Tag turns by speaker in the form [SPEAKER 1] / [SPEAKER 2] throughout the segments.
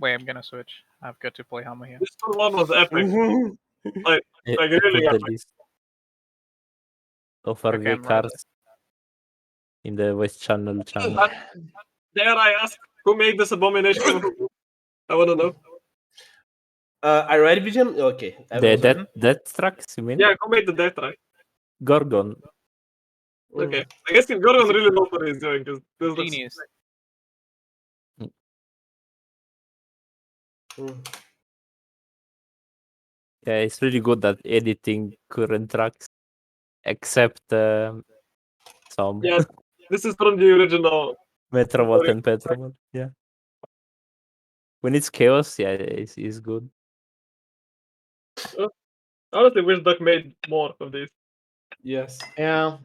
[SPEAKER 1] Wait, I'm gonna switch. I've got to play Hama here.
[SPEAKER 2] This one was epic.
[SPEAKER 3] Mhm.
[SPEAKER 4] It-
[SPEAKER 2] Like, really
[SPEAKER 4] put the
[SPEAKER 2] epic.
[SPEAKER 4] list of RV
[SPEAKER 1] I'm right
[SPEAKER 4] cars in the West Channel channel.
[SPEAKER 2] And Dare I ask who made this abomination? I want to know.
[SPEAKER 3] Uh, I read Vision. Okay. I
[SPEAKER 4] The
[SPEAKER 3] was-
[SPEAKER 4] death, death tracks, you mean?
[SPEAKER 2] Yeah, who made the death right?
[SPEAKER 4] Gorgon.
[SPEAKER 3] Mm.
[SPEAKER 2] Okay, I guess Gordon really knows what he's doing because this looks-
[SPEAKER 1] Genius.
[SPEAKER 3] Mm.
[SPEAKER 4] Yeah, it's really good at editing current tracks, except um some
[SPEAKER 2] Yeah. This is from the original.
[SPEAKER 4] Metrobot
[SPEAKER 2] Sorry.
[SPEAKER 4] and Petrobot. Yeah. When it's chaos, yeah, it's, it's good.
[SPEAKER 2] I honestly wish Duck made more of these.
[SPEAKER 3] Yes. Yeah.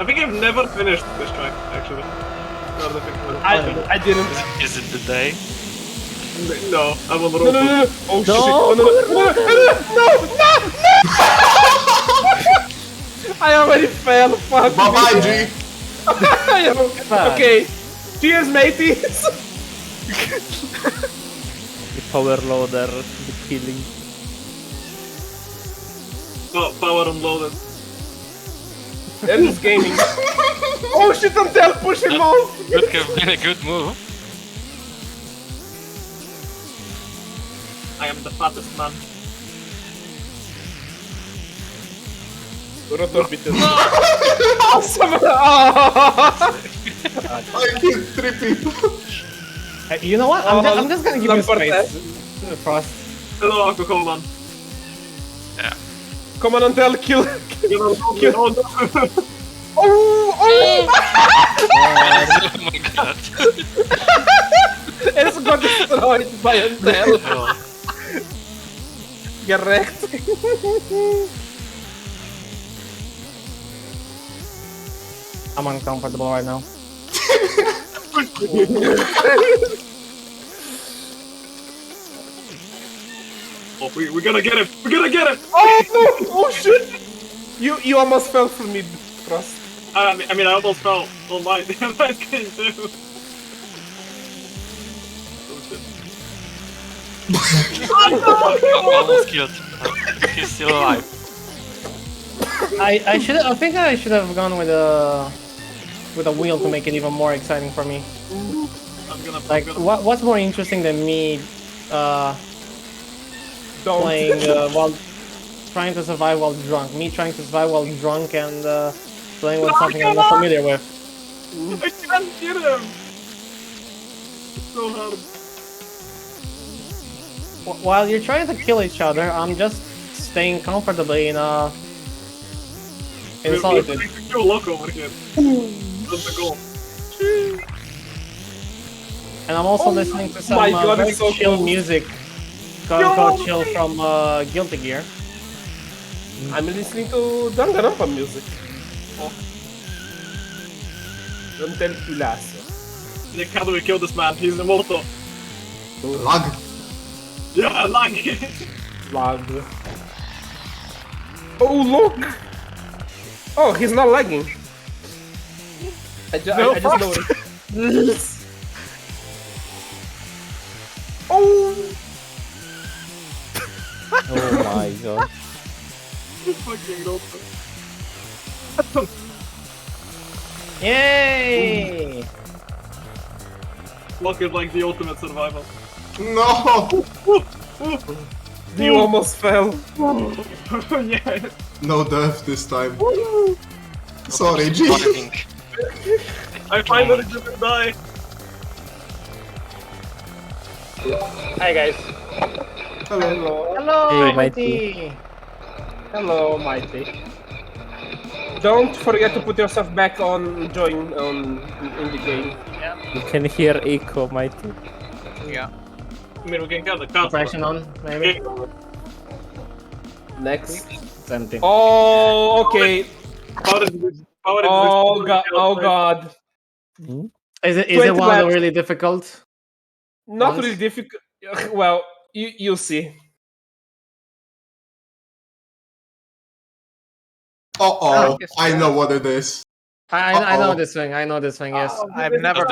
[SPEAKER 2] I think I've never finished this track actually. Now that I think about
[SPEAKER 3] I, I didn't.
[SPEAKER 5] Is it the day?
[SPEAKER 2] it. no, I'm on the
[SPEAKER 3] No,
[SPEAKER 2] road.
[SPEAKER 3] no, no, no. Oh, shit. Oh, no, no, no, no, no, no, no. I already fell. Fuck.
[SPEAKER 6] Bye bye, G.
[SPEAKER 3] okay. Cheers, mateys.
[SPEAKER 4] The power loader, the killing.
[SPEAKER 2] Oh, power unloaded.
[SPEAKER 3] I'm just gaming. oh shit, I'm down pushing mouse.
[SPEAKER 5] Would have been a good move.
[SPEAKER 2] I am the fattest man.
[SPEAKER 3] Awesome. Oh.
[SPEAKER 6] I killed three people.
[SPEAKER 7] Hey, you know what? I'm, just, I'm just gonna give you
[SPEAKER 3] Lamparte.
[SPEAKER 7] space. Uh, Frost.
[SPEAKER 2] Hello, alcohol man.
[SPEAKER 3] Come on, Antel, kill.
[SPEAKER 2] You know, you know, no.
[SPEAKER 3] Oh, oh,
[SPEAKER 5] oh my god.
[SPEAKER 3] it's got destroyed by Antel.
[SPEAKER 5] Oh,
[SPEAKER 3] Get wrecked.
[SPEAKER 7] I'm uncomfortable right now.
[SPEAKER 2] Oh, we, we're gonna get it. We're gonna get it.
[SPEAKER 3] Oh no! Oh shit! You you almost fell from me, Frost.
[SPEAKER 2] I mean, I, mean, I almost fell on my my skin too. Oh, shit.
[SPEAKER 5] Oh, almost killed. He's still alive.
[SPEAKER 7] I, I should I think I should have gone with a with a wheel to make it even more exciting for me.
[SPEAKER 2] I'm gonna. I'm
[SPEAKER 7] Like
[SPEAKER 2] gonna
[SPEAKER 7] what what's more interesting than me uh,
[SPEAKER 3] Don't.
[SPEAKER 7] playing uh, while trying to survive while drunk? Me trying to survive while drunk and uh, playing with something I'm not familiar with.
[SPEAKER 2] I can't get him! It's so hard.
[SPEAKER 7] Wh- While you're trying to kill each other, I'm just staying comfortably in a in
[SPEAKER 2] We're- We're
[SPEAKER 7] solitude.
[SPEAKER 2] trying to kill Loco over here. That's the goal.
[SPEAKER 7] And I'm also
[SPEAKER 3] Oh
[SPEAKER 7] listening to some
[SPEAKER 3] my
[SPEAKER 7] uh,
[SPEAKER 3] God,
[SPEAKER 7] very
[SPEAKER 3] it's so
[SPEAKER 7] chill
[SPEAKER 3] cool.
[SPEAKER 7] music called,
[SPEAKER 3] Yo,
[SPEAKER 7] called Chill
[SPEAKER 3] man.
[SPEAKER 7] from uh, Guilty Gear.
[SPEAKER 3] I'm listening to Danganronpa music. Oh. Antel Pulasso.
[SPEAKER 2] Nick, how do we kill this man? He's immortal.
[SPEAKER 6] Lag.
[SPEAKER 2] Yeah, lucky!
[SPEAKER 3] Love. Oh look! Oh, he's not lagging. I, ju-
[SPEAKER 2] No,
[SPEAKER 3] I, I just noticed. oh!
[SPEAKER 4] Oh my god.
[SPEAKER 2] Fucking Loco.
[SPEAKER 7] Yay!
[SPEAKER 2] Loco is like the ultimate survival.
[SPEAKER 6] No.
[SPEAKER 3] You almost fell.
[SPEAKER 2] yeah.
[SPEAKER 6] No death this time. Sorry, G.
[SPEAKER 5] Surviving.
[SPEAKER 3] Oh.
[SPEAKER 2] I finally didn't die.
[SPEAKER 3] Hi guys.
[SPEAKER 6] Hello.
[SPEAKER 3] Hello.
[SPEAKER 7] Hello,
[SPEAKER 4] Hey,
[SPEAKER 7] Mighty!
[SPEAKER 3] Hello, Mighty. Don't forget to put yourself back on join on in the game.
[SPEAKER 4] You can hear echo, mighty.
[SPEAKER 1] Yeah.
[SPEAKER 2] I mean, we can kill the cat.
[SPEAKER 7] Suppression on, maybe?
[SPEAKER 2] How
[SPEAKER 3] Next.
[SPEAKER 7] It's empty.
[SPEAKER 3] Oh, okay.
[SPEAKER 2] did we- how did
[SPEAKER 3] Oh
[SPEAKER 2] we-
[SPEAKER 3] god. Oh god.
[SPEAKER 7] Is it, is it
[SPEAKER 3] Twenty
[SPEAKER 7] one of the
[SPEAKER 3] laps.
[SPEAKER 7] really difficult?
[SPEAKER 3] Not
[SPEAKER 7] Once.
[SPEAKER 3] really difficult. Well, you you'll see.
[SPEAKER 6] Uh oh. I know what it is.
[SPEAKER 7] I, I, I know
[SPEAKER 6] Uh-oh.
[SPEAKER 7] this thing, I know this thing, yes.
[SPEAKER 1] I've never